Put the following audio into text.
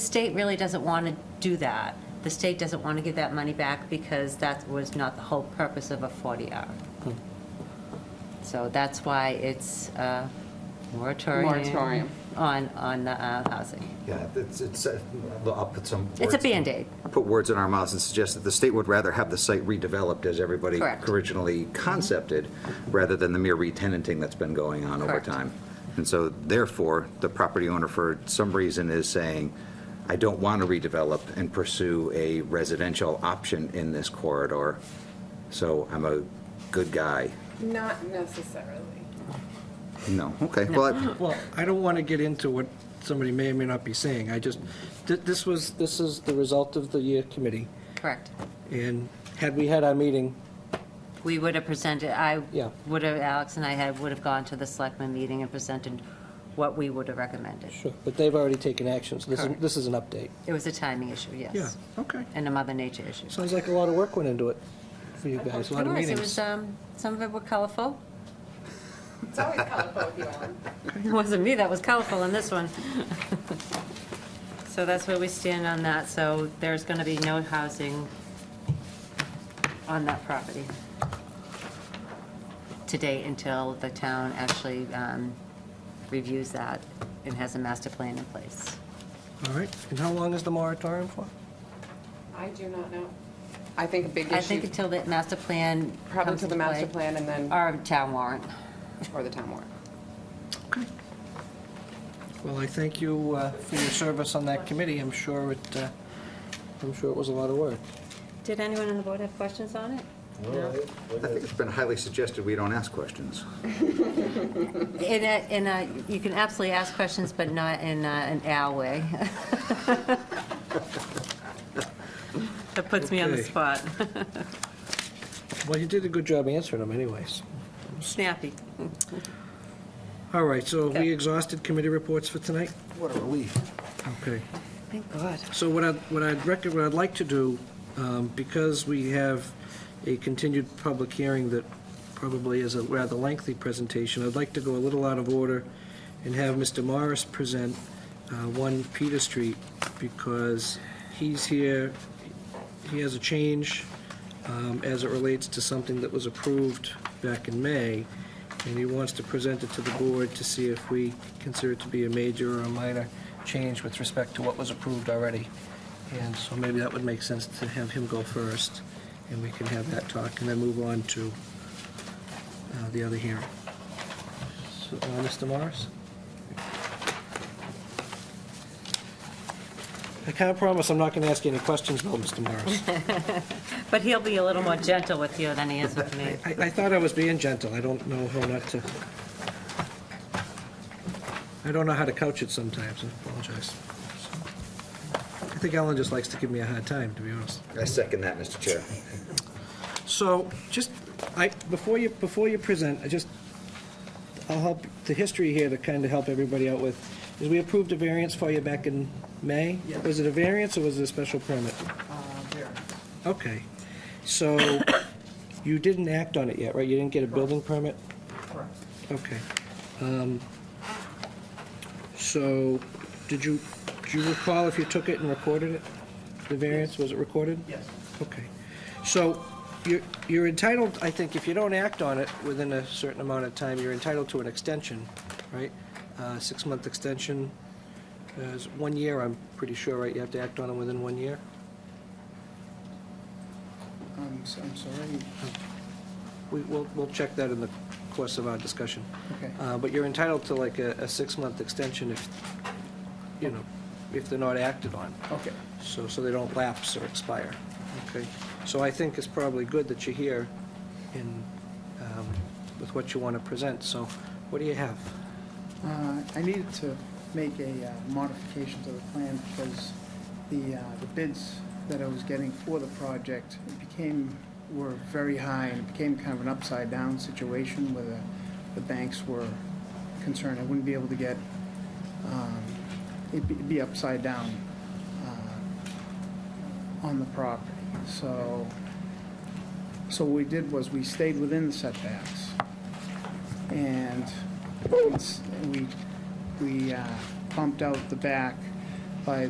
The state really doesn't want to do that. The state doesn't want to give that money back because that was not the whole purpose of a 40R. So that's why it's a moratorium. Moratorium. On, on the uh, housing. Yeah, it's, it's, uh, I'll put some. It's a words- Band-Aid. Put words in our mouths and suggest that the state would rather have the site redeveloped as everybody Correct. Mm-hmm. originally concepted, rather than the mere retenanting that's been going on over Correct. time. And so therefore, the property owner for some reason is saying, I don't want to redevelop and pursue a residential option in this corridor, so I'm a good guy. Not necessarily. No, okay, well, I- Well, I don't want to get into what somebody may or may not be saying. I just, th- this was, this is the result of the uh, committee, Correct. and had we had our meeting, We would have presented, I Yeah. would have, Alex and I had, would have gone to the selectmen meeting and presented what we would have recommended. sure, but they've already taken action, so this is, Correct. this is an update. It was a timing issue, yes. okay. And a mother nature issue. Sounds like a lot of work went into it for you guys, a lot of Otherwise, meetings. It was, um, some of it were colorful. It's always colorful with you on. It wasn't me that was colorful in this one. So that's where we stand on that, so there's going to be no housing on that property today until the town actually um, reviews that and has a master plan in place. All right, and how long is the moratorium for? I do not know. I think a big I think issue, until the master plan probably comes to the into master play. plan and then, Or town warrant. or the town warrant. Well, I thank you uh, for your service on that committee. I'm sure it, uh, I'm sure it was a lot of work. Did anyone on the board have questions on it? I think it's been highly suggested we don't ask questions. In a, in a, you can absolutely ask questions, but not in a- an owl way. That puts me on the Okay. spot. Well, you did a good job answering them anyways. Snappy. All right, so have Okay. we exhausted committee reports for tonight? What a relief. Okay. Thank God. So what I'd, what I'd reckon, what I'd like to do, um, because we have a continued public hearing that probably is a rather lengthy presentation, I'd like to go a little out of order and have Mr. Morris present uh, 1 Peter Street, because he's here, he has a change um, as it relates to something that was approved back in May, and he wants to present it to the board to see if we consider it to be a major or a minor change with respect to what was approved already. And so maybe that would make sense to have him go first, and we can have that talk, and then move on to uh, the other hearing. So, uh, Mr. Morris? I can't promise I'm not going to ask you any questions, though, Mr. Morris. But he'll be a little more gentle with you than he is with me. I, I thought I was being gentle. I don't know how not to. I don't know how to couch it sometimes. I apologize. I think Ellen just likes to give me a hard time, to be honest. I second that, Mr. Chair. So, just, I, before you, before you present, I just, I'll help, the history here to kind of help everybody out with, is we approved a variance for you back in May? Was it a variance or was it a special permit? Okay. So, you didn't act on it yet, right? You didn't get a building permit? Okay. Um, So, did you, do you recall if you took it and recorded it? The variance, was it recorded? Yes. Okay. So, you're you're entitled, I think, if you don't act on it within a certain amount of time, you're entitled to an extension, right? Uh, Six-month extension, uh, is one year, I'm pretty sure, right? You have to act on it within one year? Um, I'm, s am sorry, We- We'll, we'll check that in the course of our discussion. okay. Uh, But you're entitled to like a, a six-month extension if, you know, if they're not acted on, Okay. so, so they don't lapse or expire, okay? So I think it's probably good that you're here in, um, with what you want to present, so what do you have? Uh, I needed to make a uh, modification to the plan because the, uh, the bids that I was getting for the project became, were very high and it became kind of an upside-down situation where the, the banks were concerned I wouldn't be able to get, um, it'd be- it'd be upside down uh, on the property. So, so what we did was we stayed within the setbacks. and it's- we, we uh, bumped out the back by